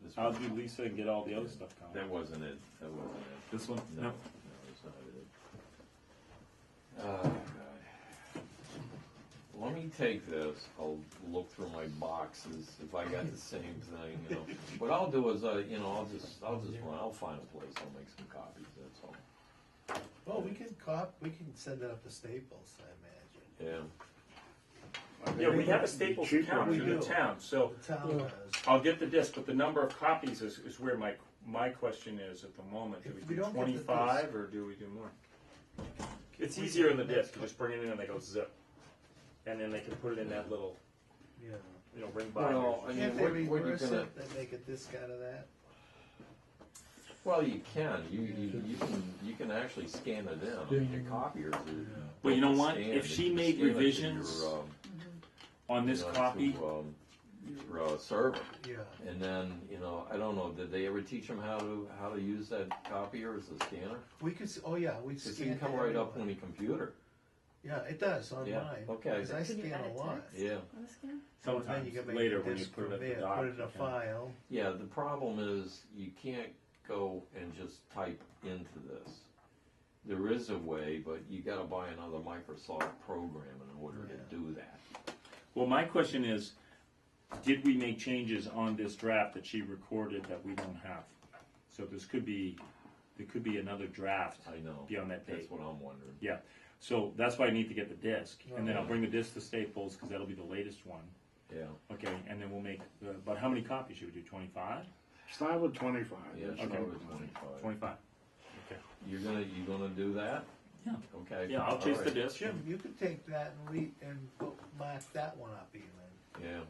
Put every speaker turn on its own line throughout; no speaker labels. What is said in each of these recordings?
This
I'll
one,
do Lisa and get all the other stuff
that
going.
wasn't it, that wasn't it.
This one?
No, no, it's not it. Oh, God. Let me take this, I'll look through my boxes if I got the same thing, you know. What I'll do is, uh, you know, I'll just, I'll just, run. I'll find a place, I'll make some copies, that's all.
Well, we can cop, we can send it up to Staples, I imagine.
Yeah,
Yeah, we have a Staples
Cheaper
account
we
in the
do.
town, so
The town does.
I'll get the disc, but the number of copies is, is where my, my question is at the moment. Do
If
we
we
do
don't get the disc-
twenty-five or do we do more? It's easier in the disc, you just bring it in and they go zip. And then they can put it in that little,
Yeah.
you know, ring
Well, I
binder.
mean,
Can't they
what- what are you
reverse
gonna-
it, then make a disc out of that?
well, you can, you, you, you can, you can actually scan it in, your copiers. are-
But you know what?
scan
If
it,
she
you can
made
scan it to
revisions
your, um,
On this
you know,
copy,
to, um, Your uh, server,
Yeah.
and then, you know, I don't know, did they ever teach them how to, how to use that copier as a scanner?
We could, s- oh yeah, we
It
scan.
can come
to
right up
everyone.
on your computer.
Yeah, it does on
Yeah,
mine.
okay.
Because I
Can you
scan a
edit
lot.
text?
Yeah,
On the scan?
So then you
sometimes
can make
later
a
when you
disc
put it
from
at the
there,
dock.
Put it in
you
a
can-
file.
yeah, the problem is you can't go and just type into this. There is a way, but you gotta buy another Microsoft program in order
Yeah.
to do that.
Well, my question is, did we make changes on this draft that she recorded that we don't have? So this could be, there could be another draft
I know,
beyond that
that's
date.
what I'm wondering.
Yeah, so that's why I need to get the disc, and then I'll
Right.
bring the disc to Staples, because that'll be the latest one.
Yeah,
Okay, and then we'll make, uh, but how many copies should we do, twenty-five?
Start with twenty-five.
yeah, it's
That's
Okay.
probably
fine.
twenty-five.
Twenty-five. Okay.
You're gonna, you gonna do that?
Yeah.
Okay.
Yeah, I'll chase the
alright.
disc.
Jim, you could take that and we, and go mark that one up even,
Yeah.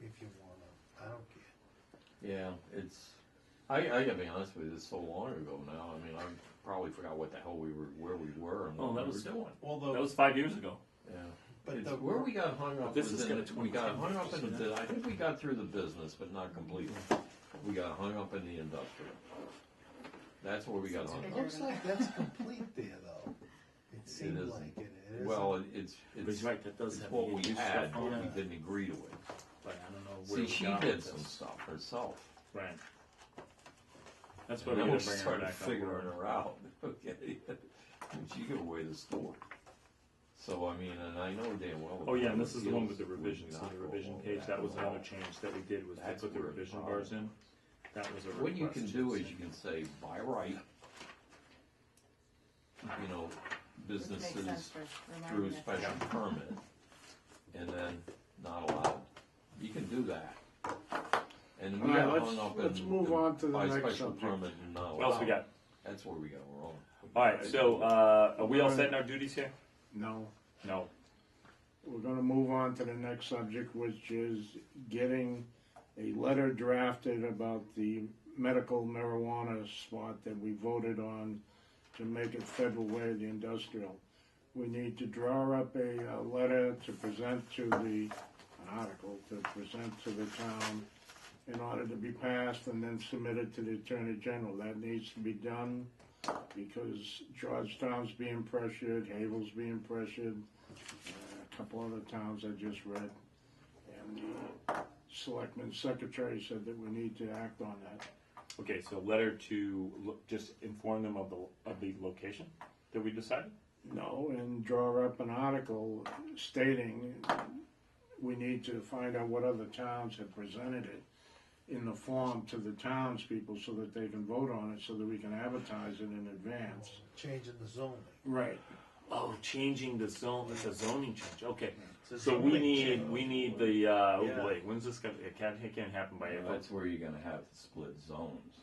if you wanna. I don't care.
Yeah, it's. I, I gotta be honest with you. It's so long ago now. I mean, I probably forgot what the hell we were, where we were, and what
Oh, that
we
was-
were doing.
That
Although,
was five years ago.
Yeah,
But
It's
the-
where we got hung up.
This
was
is
in-
gonna
We got
2010
hung up in
isn't
the. I think we got through the business, but not completely. We got hung up in the industrial. That's where we got hung
it
up.
looks like that's complete there though. It seems
isn't.
like it is.
Well, it- it's it's,
right, that does
it's what we had, but we
Yeah.
didn't agree to it.
But I don't know where
See,
we
she
got
did
with
some
this.
stuff herself.
Right. That's why
And
we're
then we
gonna bring her
started
back
figuring
up.
her out, okay? And she gave away the store. So, I mean, and I know damn well.
Oh, yeah, and this is the one with the
Appeals
revisions,
would
so
not
the
go
revision
all
page,
that
that was
well.
another change that we did, was to
That's
put the
where it
revision
bothered
bars in. That was a request.
What you can do is you can say, by right, you know,
Which makes sense
businesses
for
through
reminding us.
special permit, and then not allowed. You can do that. And we
All right,
got
let's-
hung up in.
let's move
in
on to the
by
next
special
subject.
permit and not
What else we
allowed.
got?
That's where we got wrong.
Alright, so, uh, are we all set in our duties here?
No,
No.
we're gonna move on to the next subject, which is getting a letter drafted about the medical marijuana spot that we voted on to make it federal way of the industrial. We need to draw up a, uh letter to present to the, an article to present to the town in order to be passed and then submitted to the Attorney General. That needs to be done because Georgetown's being pressured, Havel's being pressured, a couple other towns I just read. And the selectman secretary said that we need to act on that.
Okay, so letter to, lo- just inform them of the, of the location that we decided?
No, and draw up an article stating we need to find out what other towns have presented it in the form to the townspeople so that they can vote on it, so that we can advertise it in advance.
Changing the zoning.
Right.
Oh, changing the zone, it's a zoning change, okay.
It's a
So we
zoning
need,
change.
we need the, uh, oh
Yeah.
boy, when's this gonna, it can't, it can't happen by April.
That's where you're gonna have to split zones.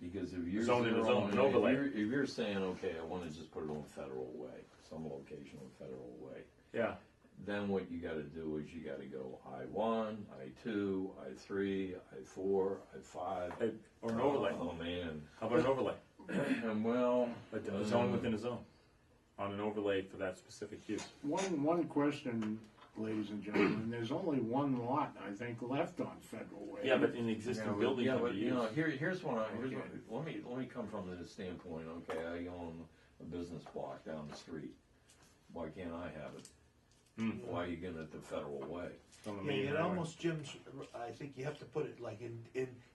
Because if you're.
Zone in a
zeroing-
zone,
if
an overlay.
you're- If you're saying, okay, I wanna just put it on federal way, some location on federal way,
Yeah,
then what you gotta do is you gotta go I one, I two, I three, I four, I five.
Uh, or an overlay,
Oh, man.
how about an overlay?
And well.
Like A zone
um,
within a zone, on an overlay for that specific use.
One, one question, ladies and gentlemen, there's only one lot, I think, left on Federal Way.
Yeah, but in the existing building
Yeah,
can
but
be
you know,
used.
here, here's one, I- here's
Okay.
one, let me, let me come from the standpoint, okay, I own a business block down the street. Why can't I have it? Why are you getting it the federal way?
on the
Yeah,
main
it
highway.
almost, Jim's, I think you have to put it like in, in,